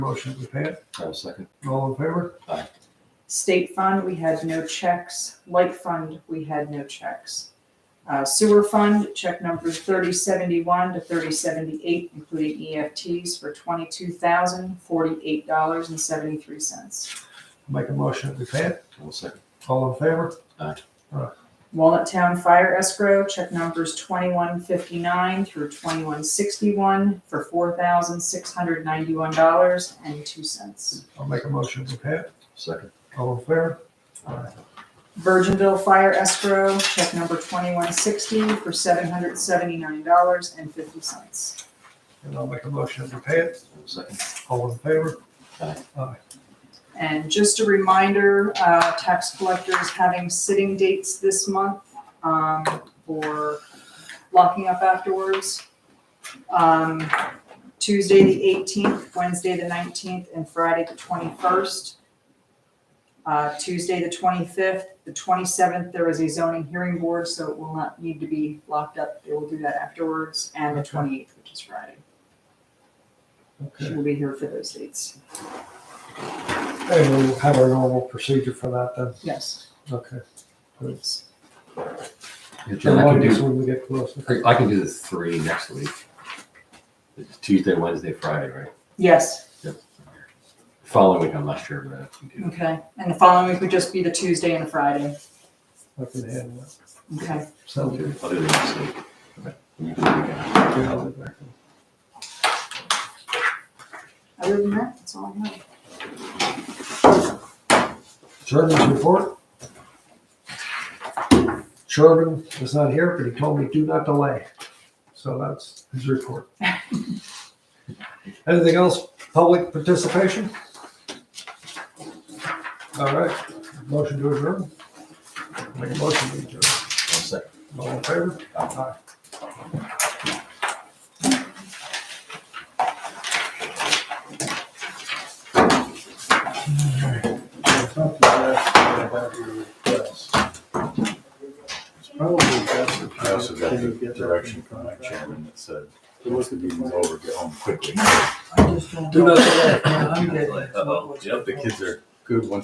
Motion to pay it. I'll second. All in favor? State fund, we had no checks. Light fund, we had no checks. Uh, Sewer fund, check numbers thirty seventy-one to thirty seventy-eight, including EFTs for twenty-two thousand forty-eight dollars and seventy-three cents. Make a motion to pay it. I'll second. uh, All in favor? Walnut Town Fire Escrow, check numbers twenty-one fifty-nine through twenty-one sixty-one for four thousand six hundred ninety-one dollars and two cents. I'll make a motion to pay it. Second. All in favor? Virginville Fire Escrow, check number twenty-one sixty for seven hundred seventy-nine dollars and fifty cents. And I'll make a motion to pay it. I'll second. All in favor? And just a reminder, uh, tax collectors having sitting dates this month, um, for locking up afterwards. Um, Tuesday, the eighteenth, Wednesday, the nineteenth, and Friday, the twenty-first. Uh, Tuesday, the twenty-fifth, the twenty-seventh, there is a zoning hearing board, so it will not need to be locked up. They will do that afterwards, and the Okay. twenty-eighth, which is Friday. She Okay. will be here for those dates. Hey, we'll have our normal procedure for that then. Yes. Okay. Please. Yeah, John, I Remind can us do, when we get closer. I- I can do the three next week. It's Tuesday, Wednesday, Friday, right? Yes. Following week, I'm not sure, but I can do. Okay, and the following week would just be the Tuesday and the Friday. I can handle it. Okay, I'll Sounds do, I'll do the next week. You can do the weekend. I'll do good. that. other than that, that's all I have. Sherman's report. Sherman is not here, but he told me do not delay. So that's his report. Anything else? Public participation? All right, motion to adjourn. Make a motion to adjourn. I'll second. All in favor? Aye. Probably best if I also got can you the get that direction from my contract? chairman that said, It was once the the meeting's before. over, get home quickly. I just don't Do know. not delay. I'm getting- Uh-oh, yep, the kids are good once